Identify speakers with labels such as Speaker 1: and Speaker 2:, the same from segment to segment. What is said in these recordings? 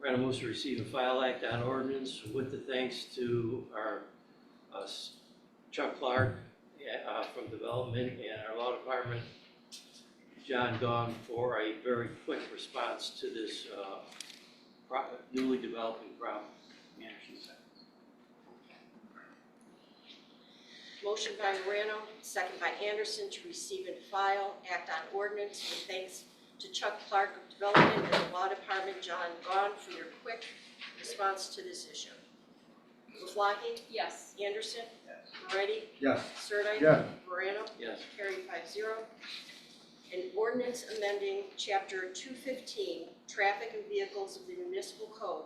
Speaker 1: Random moves to receive and file act on ordinance with the thanks to our uh, Chuck Clark uh, from Development and our Law Department, John Gong, for a very quick response to this uh, pro- newly developing problem.
Speaker 2: Motion by Morano, second by Anderson, to receive and file, act on ordinance with thanks to Chuck Clark of Development and the Law Department, John Gahn, for your quick response to this issue. Maflahee?
Speaker 3: Yes.
Speaker 2: Anderson? Moretti?
Speaker 4: Yes.
Speaker 2: Sirdike?
Speaker 4: Yes.
Speaker 2: Morano?
Speaker 1: Yes,
Speaker 2: Carried five zero. An ordinance amending chapter two fifteen, traffic and vehicles of the municipal code.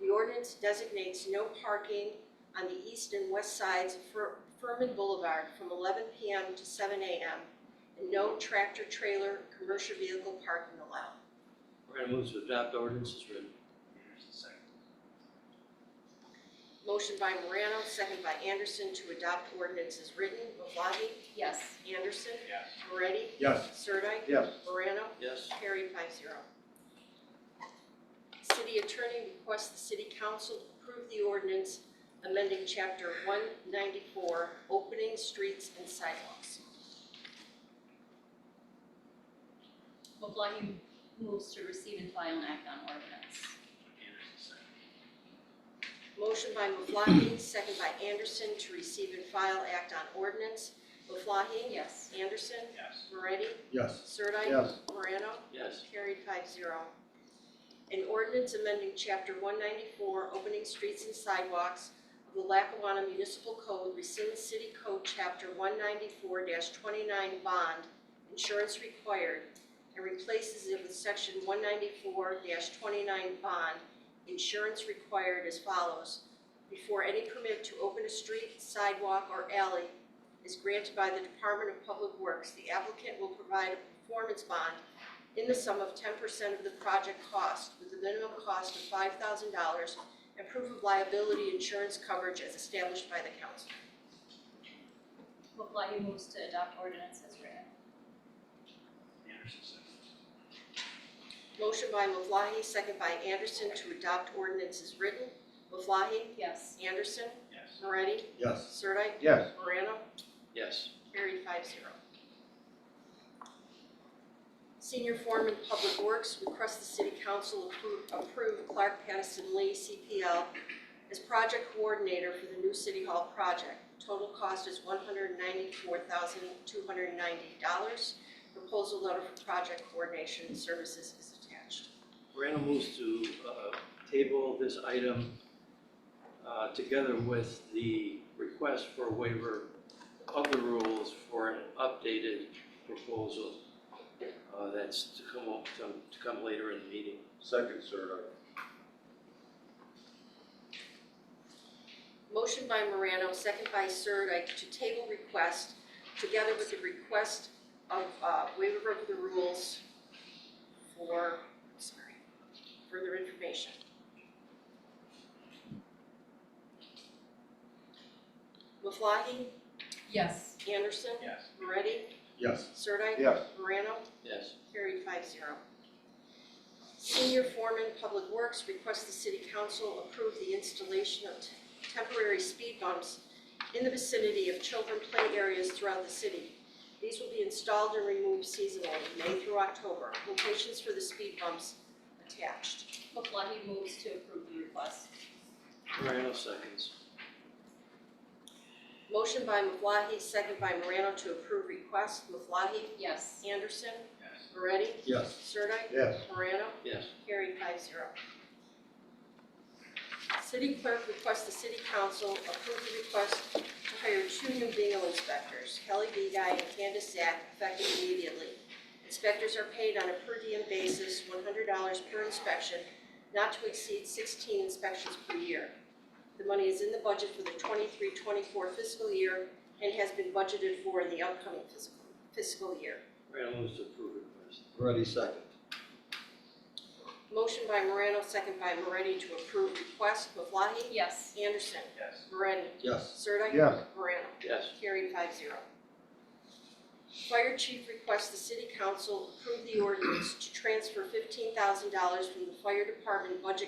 Speaker 2: The ordinance designates no parking on the east and west sides of Fur- Furman Boulevard from eleven P M to seven A M. And no tractor trailer, commercial vehicle parking allowed.
Speaker 1: random moves to adopt ordinance is written.
Speaker 2: Motion by Morano, second by Anderson to adopt ordinance as written. Maflahee?
Speaker 3: Yes.
Speaker 2: Anderson?
Speaker 1: Yes.
Speaker 2: Moretti?
Speaker 4: Yes.
Speaker 2: Sirdike?
Speaker 4: Yes.
Speaker 2: Morano?
Speaker 1: Yes,
Speaker 2: Carried five zero. City attorney requests the city council approve the ordinance amending chapter one ninety-four, opening streets and sidewalks.
Speaker 3: Maflahe moves to receive and file an act on ordinance.
Speaker 2: Motion by Maflahe, second by Anderson to receive and file act on ordinance. Maflahe?
Speaker 3: Yes.
Speaker 2: Anderson? Yes. Moretti?
Speaker 4: Yes.
Speaker 2: Sirdike?
Speaker 4: Yes.
Speaker 2: Morano?
Speaker 1: yes,
Speaker 2: Carried five zero. An ordinance amending chapter one ninety-four, opening streets and sidewalks of the Lackawanna Municipal Code rescinds city code chapter one ninety-four twenty-nine bond, insurance required, and replaces it with section one ninety-four twenty-nine bond, insurance required as follows. Before any permit to open a street, sidewalk, or alley is granted by the Department of Public Works, the applicant will provide a performance bond in the sum of ten percent of the project cost, with a minimum cost of five thousand dollars, and proof of liability insurance coverage as established by the council.
Speaker 3: Maflahe moves to adopt ordinance as written.
Speaker 2: Motion by Maflahe, second by Anderson to adopt ordinance as written. Maflahe?
Speaker 3: Yes.
Speaker 2: Anderson? Yes. Moretti?
Speaker 4: Yes.
Speaker 2: Sirdike?
Speaker 4: Yes.
Speaker 2: Morano?
Speaker 1: yes,
Speaker 2: Carried five zero. Senior Foreman Public Works requests the City Council appro- approve Clark Patterson Lee, CPL, as project coordinator for the new City Hall project. Total cost is one hundred ninety-four thousand two hundred ninety dollars. Proposal letter for project coordination services is attached.
Speaker 1: random moves to uh, table this item uh, together with the request for waiver of the rules for an updated proposal uh, that's to come up, to to come later in the meeting.
Speaker 4: Second, sir.
Speaker 2: Motion by Morano, second by Sirdike, to table request, together with the request of uh, waiver of the rules for, sorry, further information. Maflahe?
Speaker 3: Yes.
Speaker 2: Anderson?
Speaker 1: Yes.
Speaker 2: Moretti?
Speaker 4: Yes.
Speaker 2: Sirdike?
Speaker 4: Yes.
Speaker 2: Morano?
Speaker 1: Yes.
Speaker 2: Carried five zero. Senior Foreman Public Works requests the City Council approve the installation of te- temporary speed bumps in the vicinity of children play areas throughout the city. These will be installed and removed seasonally, May through October. Locations for the speed bumps attached.
Speaker 3: Maflahe moves to approve the request.
Speaker 1: Morano seconds.
Speaker 2: Motion by Maflahe, second by Morano to approve request. Maflahe?
Speaker 3: Yes.
Speaker 2: Anderson? Moretti?
Speaker 4: Yes.
Speaker 2: Sirdike?
Speaker 4: Yes.
Speaker 2: Morano?
Speaker 1: Yes.
Speaker 2: Carried five zero. City clerk requests the city council approve the request to hire two new bingo inspectors, Kelly Begay and Candace Zack, effective immediately. Inspectors are paid on a per diem basis, one hundred dollars per inspection, not to exceed sixteen inspections per year. The money is in the budget for the 23-24 fiscal year and has been budgeted for in the upcoming fiscal, fiscal year.
Speaker 1: Morano moves to approve request.
Speaker 4: Ready, second.
Speaker 2: Motion by Morano, second by Moretti to approve request. Maflahe?
Speaker 3: Yes.
Speaker 2: Anderson.
Speaker 1: Yes.
Speaker 2: Moretti.
Speaker 4: Yes.
Speaker 2: Sirdike.
Speaker 4: Yes.
Speaker 2: Morano.
Speaker 1: Yes.
Speaker 2: Carried five zero. Fire chief requests the city council approve the ordinance to transfer fifteen thousand dollars from the fire department budget